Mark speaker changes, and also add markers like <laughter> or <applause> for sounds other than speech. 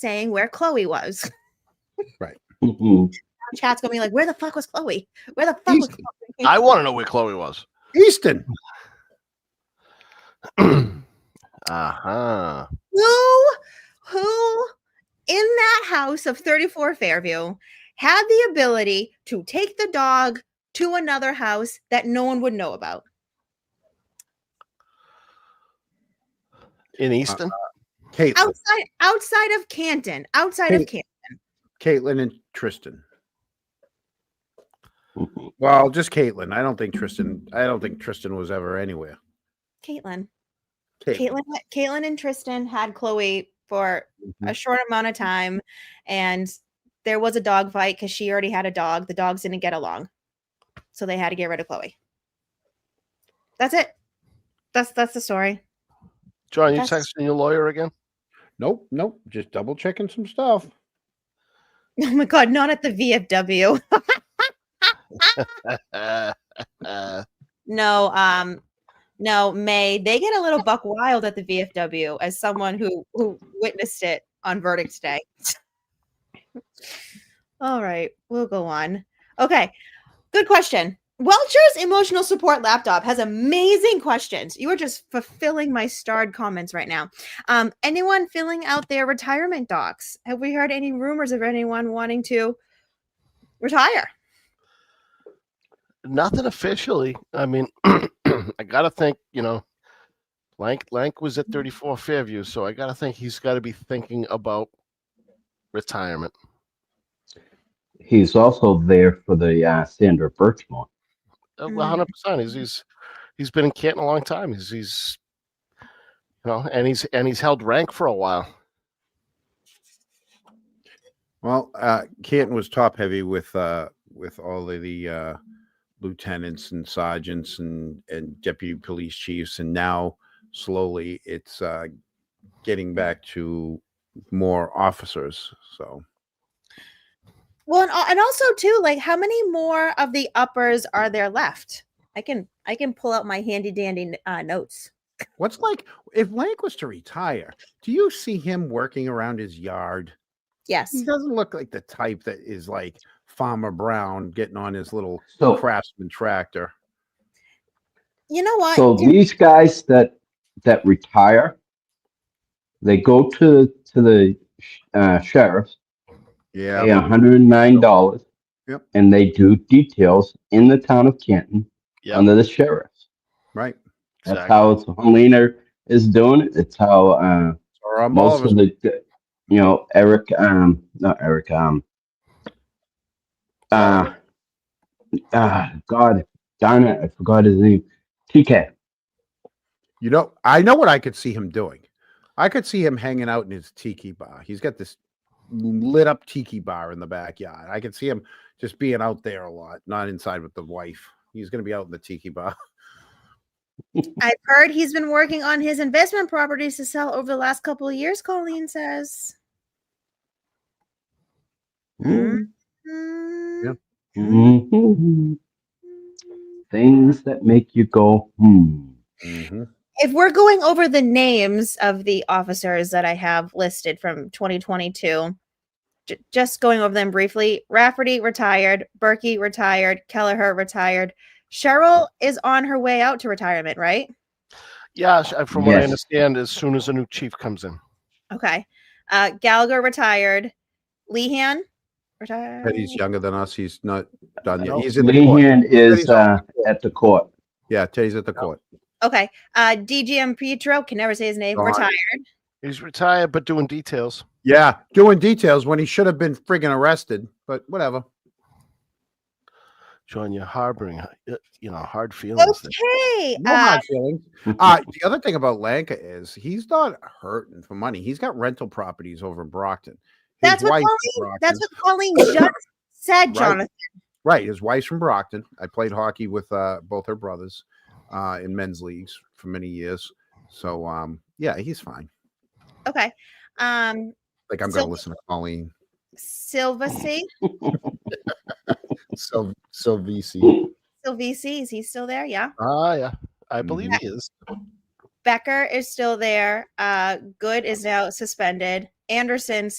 Speaker 1: saying where Chloe was. <laughs>
Speaker 2: Mhm.
Speaker 1: Chat's gonna be like, where the fuck was Chloe? Where the fuck was
Speaker 2: Easy.
Speaker 1: Chloe?
Speaker 3: I want to know where Chloe was.
Speaker 2: Easton.
Speaker 3: <clears throat> uh-huh.
Speaker 1: who who in that house of 34 Fairview had the ability to take the dog to another house that no one would know about.
Speaker 3: In Easton?
Speaker 2: Caitlin.
Speaker 1: Outside outside of Canton, outside
Speaker 2: Hey.
Speaker 1: of Canton.
Speaker 2: Caitlin and Tristan.
Speaker 4: Mhm.
Speaker 2: Well, just Caitlin. I don't think Tristan. I don't think Tristan was ever anywhere.
Speaker 1: Caitlin.
Speaker 2: Caitlin.
Speaker 1: Caitlin Caitlin and Tristan had Chloe for a short amount of time and there was a dog fight because she already had a dog. The dogs didn't get along. So they had to get rid of Chloe. That's it. That's that's the story. <laughs>
Speaker 3: John, you
Speaker 1: That's-
Speaker 3: texting your lawyer again?
Speaker 2: Nope. Nope. Just double checking some stuff.
Speaker 1: Oh my god, not at the VFW.
Speaker 3: Uh, <laughs> uh,
Speaker 1: No, um, no, May. They get a little buck wild at the VFW as someone who who witnessed it on verdict day. All right, we'll go on. Okay, good question. Welcher's emotional support laptop has amazing questions. You are just fulfilling my starred comments right now. Um, anyone filling out their retirement docs? Have we heard any rumors of anyone wanting to retire?
Speaker 3: nothing officially. I mean, <clears throat> I got to think, you know, Lank, Lank was at 34 Fairview, so I got to think he's got to be thinking about retirement.
Speaker 4: He's also there for the uh, Sandra Birchmore.
Speaker 3: Uh,
Speaker 1: Mm.
Speaker 3: 100%. He's, he's, he's been in Canton a long time. He's, he's, you know, and he's, and he's held rank for a while.
Speaker 2: Well, uh, Canton was top heavy with uh, with all of the uh, lieutenants and sergeants and and deputy police chiefs, and now slowly it's uh, getting back to more officers. So
Speaker 1: Well, and, al- and also too, like how many more of the uppers are there left? I can I can pull out my handy dandy n- uh, notes.
Speaker 2: what's like if Lank was to retire? Do you see him working around his yard? He
Speaker 1: Yes,
Speaker 2: doesn't look like the type that is like Farmer Brown getting on his little
Speaker 4: So
Speaker 2: craftsman tractor.
Speaker 1: you know what?
Speaker 4: So
Speaker 1: Dude,
Speaker 4: these guys that that retire, they go to to the sh- uh, sheriff,
Speaker 2: Yeah.
Speaker 4: pay one hundred and nine dollars,
Speaker 2: Yep.
Speaker 4: and they do details in the town of Canton
Speaker 3: Yep.
Speaker 4: under the sheriff.
Speaker 2: Right.
Speaker 4: That's
Speaker 3: Exactly.
Speaker 4: how Helena is doing it. It's how uh,
Speaker 2: Or um, all
Speaker 4: most
Speaker 2: of us.
Speaker 4: of the you know Eric, um, not Eric, um, uh, uh God, Donna, I forgot his name, TK.
Speaker 2: You know, I know what I could see him doing. I could see him hanging out in his tiki bar. He's got this lit up tiki bar in the backyard. I could see him just being out there a lot, not inside with the wife. He's going to be out in the tiki bar.
Speaker 1: I've heard he's been working on his investment properties to sell over the last couple of years. Colleen says. Mhm.
Speaker 2: Yeah.
Speaker 4: Mhm. Things that make you go, hmm.
Speaker 2: Mhm.
Speaker 1: If we're going over the names of the officers that I have listed from 2022, j- just going over them briefly Rafferty retired, Berkey retired, Kelleher retired. Cheryl is on her way out to retirement, right?
Speaker 3: Yeah, sh- uh, from what I
Speaker 4: Yes.
Speaker 3: understand, as soon as a new chief comes in.
Speaker 1: Okay. Uh, Gallagher retired, Lehan retired.
Speaker 2: But he's younger than us. He's not done yet.
Speaker 3: No.
Speaker 2: He's in the court.
Speaker 4: Lehan is
Speaker 2: He's on
Speaker 4: uh, at the court.
Speaker 2: Yeah, Teddy's at the court.
Speaker 1: Okay. Uh, DGM Pietro can never say his name.
Speaker 2: Gone.
Speaker 1: Retired.
Speaker 3: He's retired, but doing details.
Speaker 2: Yeah, doing details when he should have been friggin' arrested, but whatever.
Speaker 3: John, you're harboring, uh, you know, hard feelings. there.
Speaker 1: Okay.
Speaker 2: No
Speaker 1: Uh,
Speaker 2: hard feelings. Uh, the other thing about Lanka is he's not hurting for money. He's got rental properties over in Brockton. His
Speaker 1: that's what
Speaker 2: wife's from
Speaker 1: Colleen. That's
Speaker 2: Brockton.
Speaker 1: what Colleen just said, Jonathan.
Speaker 2: Right. His wife's from Brockton. I played hockey with uh, both her brothers uh, in men's leagues for many years. So um, yeah, he's fine.
Speaker 1: Okay. Um,
Speaker 2: Like I'm
Speaker 1: So-
Speaker 2: going to listen to Colleen
Speaker 1: Silvacy,
Speaker 2: Sil- Silvisi.
Speaker 1: Silvisi, is he still there? Yeah.
Speaker 3: Ah, yeah, I believe he is.
Speaker 1: Becker is still there. Uh, Good is now suspended. Anderson's